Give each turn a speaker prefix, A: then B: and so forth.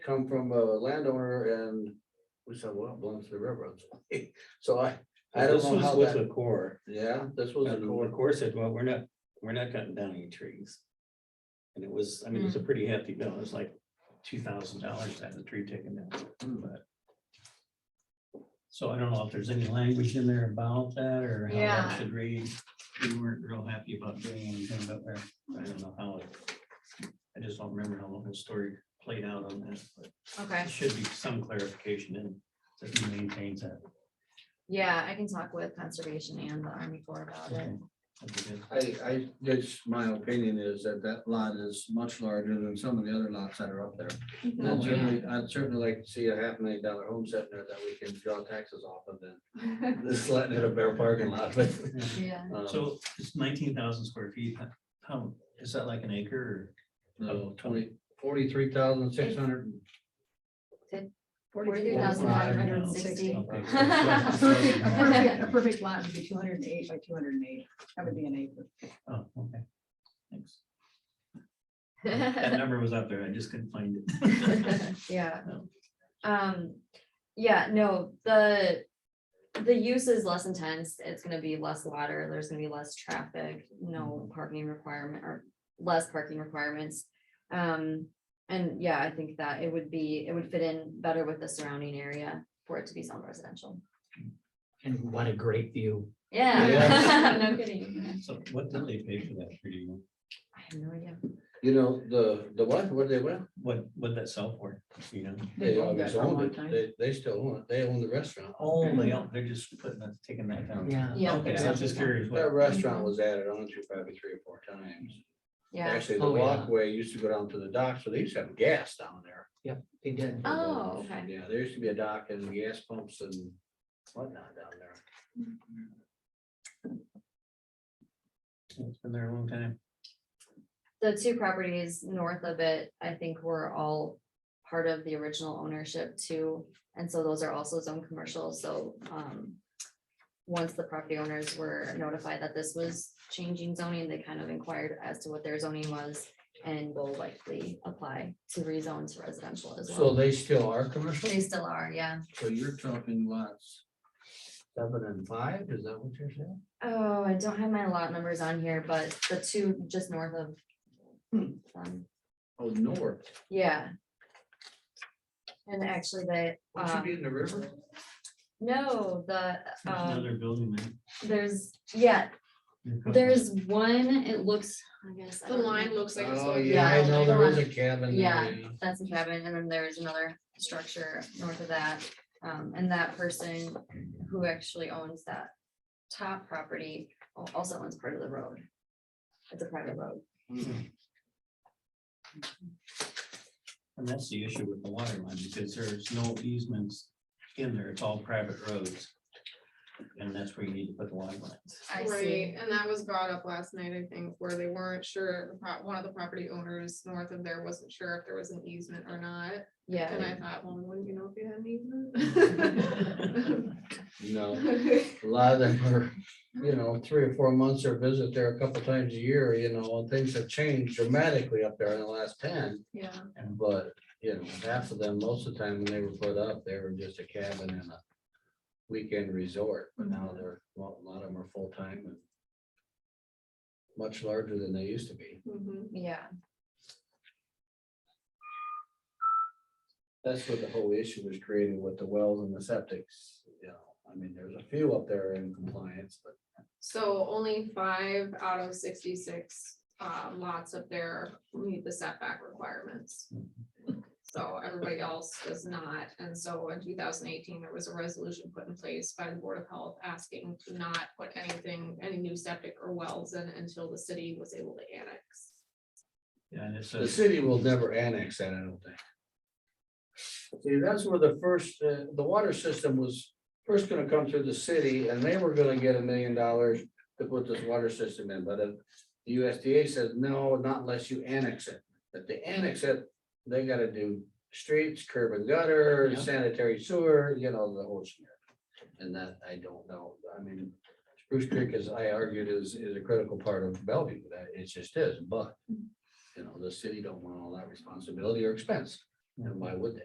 A: come from a landowner and we said, well, it belongs to the railroad. So I, I don't
B: This
A: know
B: was
A: how
B: With the
A: that,
B: core,
A: yeah, this was a
B: and the
A: court.
B: core said, well, we're not, we're not cutting down any trees. And it was, I mean, it
C: Hmm.
B: was a pretty hefty bill, it was like two thousand dollars to have the tree taken down, but. So I don't know if there's any language in there about that or how
C: Yeah.
B: that should read, we weren't real happy about doing anything about that, I don't know how. it- I just don't remember how long the story played out on that, but
C: Okay,
B: there should be some clarification in, that he maintains that.
C: yeah, I can talk with conservation and the Army Corps about it.
B: That'd be good.
A: I, I, that's my opinion is that that lot is much larger than some of the other lots that are up there. And I'd certainly, I'd certainly like to see a half million dollar home set in there that we can draw taxes off of than this letting it a bare parking lot, but.
B: Yeah.
C: Yeah,
A: um,
B: So it's nineteen thousand square feet, How- how, is that like an acre
A: No, twenty, forty-three thousand, six hundred.
C: forty-three thousand nine hundred and
B: or?
C: sixty.
B: okay, so
D: A
B: it's less than-
D: perfect- a perfect- a perfect lot would be two hundred and eight by two hundred and eight. That would be an acre.
B: Oh, okay. Thanks. That number was up there, I just couldn't find it.
C: Yeah.
B: No.
C: Um, yeah, no, the, the use is less intense, it's gonna be less water, there's gonna be less traffic, no parking requirement or less parking requirements. Um, and yeah, I think that it would be, it would fit in better with the surrounding area for it to be some residential.
E: And what a great view.
C: Yeah,
A: Yeah.
C: no kidding.
B: So what did they pay for that pretty much?
C: I have no idea.
A: You know, the, the what, what they went,
B: What, what that sell for, you know?
A: they
D: owned that
A: always
D: for a long
A: owned it,
D: time.
A: they, they still own it, they own the restaurant.
B: Oh, they, don't- they're just putting, that- taking that down.
E: Yeah.
C: Yeah.
B: Okay, I was just curious. what-
A: That restaurant was added on to probably three or four times.
C: Yeah,
A: Actually, the
E: Oh, yeah.
A: walkway used to go down to the dock, so they used to have gas down there.
E: They did.
C: oh, okay.
A: Yeah, there used to be a dock and gas pumps and whatnot down there.
B: It's been there a long time.
C: the two properties north of it, I think were all part of the original ownership too. And so those are also zone commercial, so, um, once the property owners were notified that this was changing zoning, they kind of inquired as to what their zoning was and will likely apply to rezone to residential as
A: So
C: well.
A: they still are commercial?
C: They still are, yeah.
A: So you're talking lots seven and five, is that what you're saying?
C: Oh, I don't have my lot numbers on here, but the two just north of, um,
A: Oh, north,
C: yeah. And actually, they.
A: would you
C: um,
A: be in the river?
C: No, the,
B: There's
C: um,
B: another building there.
C: there's, yeah,
B: You're cutting-
C: there's one, it looks, I guess. I
F: The
C: don't know.
F: line looks like. it's
A: Oh,
F: going
A: yeah, I
C: Yeah,
F: down.
A: know there
C: like
A: is
C: one.
A: a cabin. there,
C: Yeah. That's a cabin, and then there's another structure north of that, um, and that person who actually owns that top property al- also owns part of the road. It's a private road.
B: And that's the issue with the water line, because there's no easements in there, it's all private roads. And that's where you need to put the water lines.
C: I
F: Right,
C: see.
F: and that was brought up last night, I think, where they weren't sure, the pro- one of the property owners north of there wasn't sure if there was an easement or not. And
C: Yeah,
F: I thought, well, wouldn't you know if you had an
A: No,
F: easement?
A: a lot of them are, you know, three or four months or visit there a couple times a year, you know, and things have changed dramatically up there in the last ten.
F: Yeah,
A: But, you know, half of them, most of the time when they were put up, they were just a cabin and a weekend resort, but now they're, a lot a lot of them are full-time and much larger than they used to be.
F: mhm.
C: yeah,
A: That's what the whole issue was created with the wells and the septics, you know, I mean, there's a few up there in compliance, but
F: so only five out of sixty-six uh, lots up there meet the setback requirements. So everybody else does not, and so in two thousand eighteen, there was a resolution put in place by the Board of Health asking to not put anything, any new septic or wells in until the city was able to annex.
B: Yeah, and it's,
A: The
B: a-
A: city will never annex that, I don't think. See, that's where the first, uh, the water system was first gonna come through the city and they were gonna get a million dollars to put this water system in, but uh, the USDA says, no, not unless you annex it. If they annex it, they gotta do streets, curb and gutter,
B: Yeah.
A: sanitary sewer, you know, the whole smear. And that, I don't know, I mean, Spruce Creek, as I argued, is, is a critical part of Bellevue, that it just is, but you know, the city don't want all that responsibility or expense. and why would they?